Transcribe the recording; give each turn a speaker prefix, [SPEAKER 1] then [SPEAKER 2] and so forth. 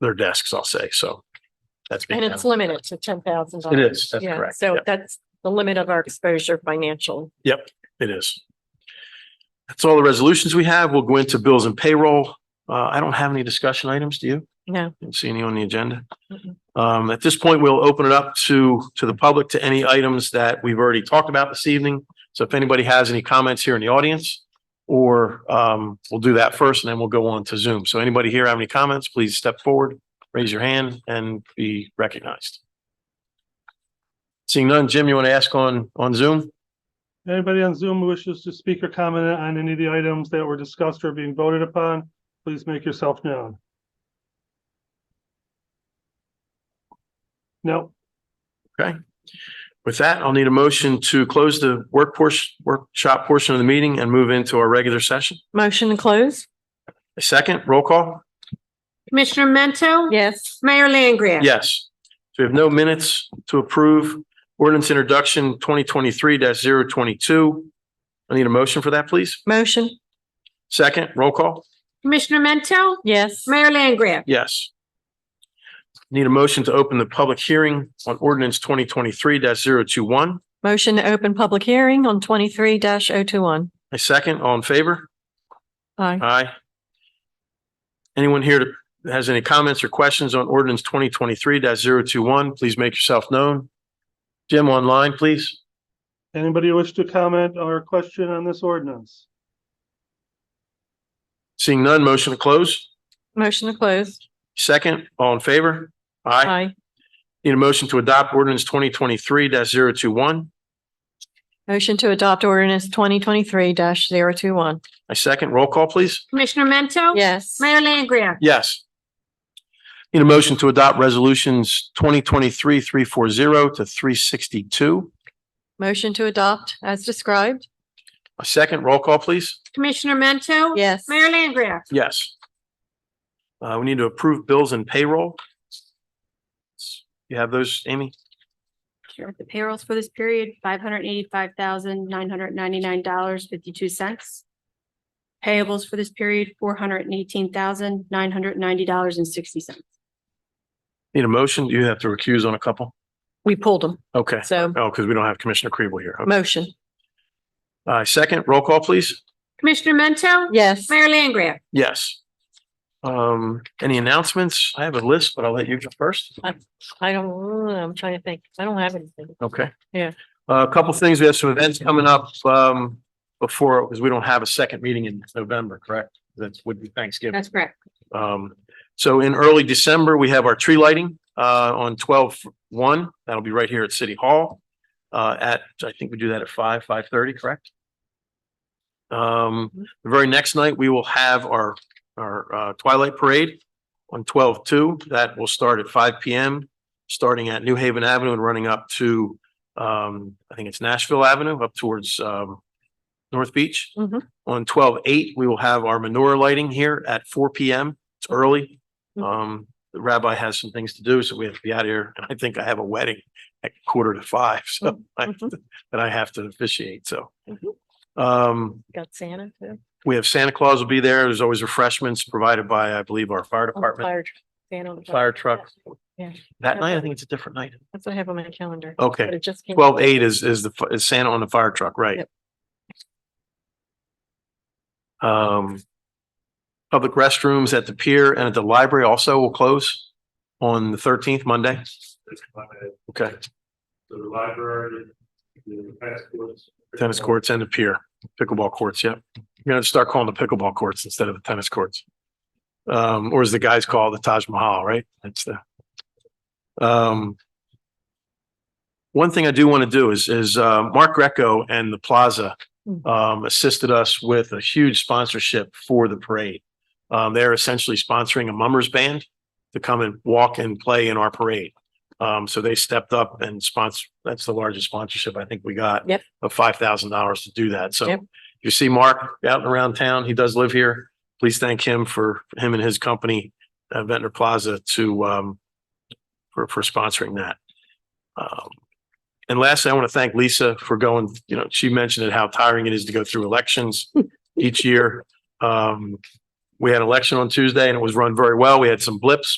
[SPEAKER 1] their desks, I'll say, so. That's. being
[SPEAKER 2] And it's
[SPEAKER 1] done.
[SPEAKER 2] limited to ten thousand
[SPEAKER 1] It
[SPEAKER 2] dollars.
[SPEAKER 1] is, that's
[SPEAKER 2] Yeah,
[SPEAKER 1] correct.
[SPEAKER 2] so
[SPEAKER 1] Yep,
[SPEAKER 2] that's the limit of our exposure financial.
[SPEAKER 1] Yep, it is. That's all the resolutions we have. We'll go into bills and payroll. Uh, I don't have any discussion items, do you?
[SPEAKER 2] No.
[SPEAKER 1] Didn't see any on the agenda.
[SPEAKER 2] Mm-mm.
[SPEAKER 1] Um, at this point, we'll open it up to, to the public, to any items that we've already talked about this evening. So if anybody has any comments here in the audience, or, um, we'll do that first and then we'll go on to Zoom. So anybody here have any comments, please step forward, raise your hand and be recognized. Seeing none, Jim, you want to ask on, on Zoom?
[SPEAKER 3] Anybody on Zoom who wishes to speak or comment on any of the items that were discussed or being voted upon, please make yourself known. No,
[SPEAKER 1] With that, I'll need a motion to close the workforce workshop portion of the meeting and move into our regular session.
[SPEAKER 2] Motion to close?
[SPEAKER 1] A second, roll call?
[SPEAKER 4] Commissioner Mento?
[SPEAKER 2] Yes.
[SPEAKER 4] Mayor Langria?
[SPEAKER 1] Yes. So we have no minutes to approve. Ordinance introduction twenty twenty-three 22 I need a motion for that, please.
[SPEAKER 2] Motion?
[SPEAKER 1] Second, roll call?
[SPEAKER 4] Commissioner Mento?
[SPEAKER 2] Yes.
[SPEAKER 4] Mayor Langria?
[SPEAKER 1] Yes. Need a motion to open the public hearing on ordinance twenty twenty-three 21
[SPEAKER 2] Motion to open public hearing on twenty-three oh 21
[SPEAKER 1] A second, all in favor?
[SPEAKER 2] Aye.
[SPEAKER 1] Aye. Anyone here that has any comments or questions on ordinance twenty twenty-three 21 please make yourself known. Jim, online, please.
[SPEAKER 3] anybody wish to comment or question on this ordinance?
[SPEAKER 1] Seeing none, motion to close.
[SPEAKER 2] Motion to close?
[SPEAKER 1] Second, all in favor? Aye.
[SPEAKER 2] Aye.
[SPEAKER 1] Need a motion to adopt ordinance twenty twenty-three 21
[SPEAKER 2] Motion to adopt ordinance twenty twenty-three 21
[SPEAKER 1] A second, roll call, please.
[SPEAKER 4] Commissioner Mento?
[SPEAKER 2] Yes.
[SPEAKER 4] Mayor Langria?
[SPEAKER 1] Yes. Need a motion to adopt resolutions twenty twenty-three three four zero to three sixty-two.
[SPEAKER 2] Motion to adopt as described?
[SPEAKER 1] A second, roll call, please.
[SPEAKER 4] Commissioner Mento?
[SPEAKER 2] Yes.
[SPEAKER 4] Mayor Langria?
[SPEAKER 1] Yes. Uh, we need to approve bills and payroll. You have those, Amy?
[SPEAKER 5] Sure. The payrolls for this period, five hundred eighty-five thousand, nine hundred ninety-nine dollars, fifty-two cents. Payables for this period, four hundred eighteen thousand, nine hundred ninety dollars and sixty cents.
[SPEAKER 1] Need a motion? You have to recuse on a couple?
[SPEAKER 2] We pulled them,
[SPEAKER 1] Okay.
[SPEAKER 2] so
[SPEAKER 1] Oh, because we don't have Commissioner Kribel here. Okay.
[SPEAKER 2] motion?
[SPEAKER 1] Uh, second, roll call, please.
[SPEAKER 4] Commissioner Mento?
[SPEAKER 2] Yes.
[SPEAKER 4] Mayor Langria?
[SPEAKER 1] Yes. Um, any announcements? I have a list, but I'll let you go first.
[SPEAKER 2] I don't, I'm trying to think. I don't have anything.
[SPEAKER 1] Okay.
[SPEAKER 2] Yeah.
[SPEAKER 1] Uh, A couple things. We have some events coming up um before, because we don't have a second meeting in November, correct? That would be Thanksgiving.
[SPEAKER 4] That's correct.
[SPEAKER 1] Um, so in early December, we have our tree lighting, uh, on twelve one. That'll be right here at City Hall. Uh, at, I think we do that at five, five thirty, correct? Um, the very next night, we will have our, our, uh, Twilight Parade on twelve two. That will start at five P M, starting at New Haven Avenue and running up to, um, I think it's Nashville Avenue up towards, um, North Beach.
[SPEAKER 2] Mhm.
[SPEAKER 1] On twelve eight, we will have our menorah lighting here at four P M. It's early.
[SPEAKER 2] Mhm.
[SPEAKER 1] Um, the rabbi has some things to do, so we have to be out of here. And I think I have a wedding at quarter to five, so I,
[SPEAKER 2] Mhm.
[SPEAKER 1] that I have to officiate, so.
[SPEAKER 2] Mhm.
[SPEAKER 1] Um,
[SPEAKER 2] Got Santa too.
[SPEAKER 1] we have Santa Claus will be there. There's always refreshments provided by, I believe, our fire department,
[SPEAKER 2] Oh, Fire- Santa on the
[SPEAKER 1] fire truck.
[SPEAKER 2] Yeah.
[SPEAKER 1] That night, I think it's a different night.
[SPEAKER 2] That's what I have on my calendar.
[SPEAKER 1] Okay.
[SPEAKER 2] But it just came.
[SPEAKER 1] Twelve eight is, is the, fi- is Santa on the fire truck, right?
[SPEAKER 2] Yep.
[SPEAKER 1] Um, public restrooms at the pier and at the library also will close on the thirteenth, Monday. Okay,
[SPEAKER 3] The library, the passports.
[SPEAKER 1] tennis courts and the pier, pickleball courts, yep. You're gonna start calling the pickleball courts instead of the tennis courts. Um, or as the guys call the Taj Mahal, right? That's the. Um. One thing I do want to do is, is, uh, Mark Greco and the Plaza, um, assisted us with a huge sponsorship for the parade. Um, they're essentially sponsoring a mummers band to come and walk and play in our parade. Um, so they stepped up and sponsor, that's the largest sponsorship I think we got.
[SPEAKER 2] Yep.
[SPEAKER 1] Of five thousand dollars to do that. So
[SPEAKER 2] Yep.
[SPEAKER 1] you see Mark out and around town, he does live here. Please thank him for him and his company, uh, Ventnor Plaza to, um, for, for sponsoring that. Um, and lastly, I want to thank Lisa for going, you know, she mentioned it, how tiring it is to go through elections each year. Um, we had an election on Tuesday and it was run very well. We had some blips,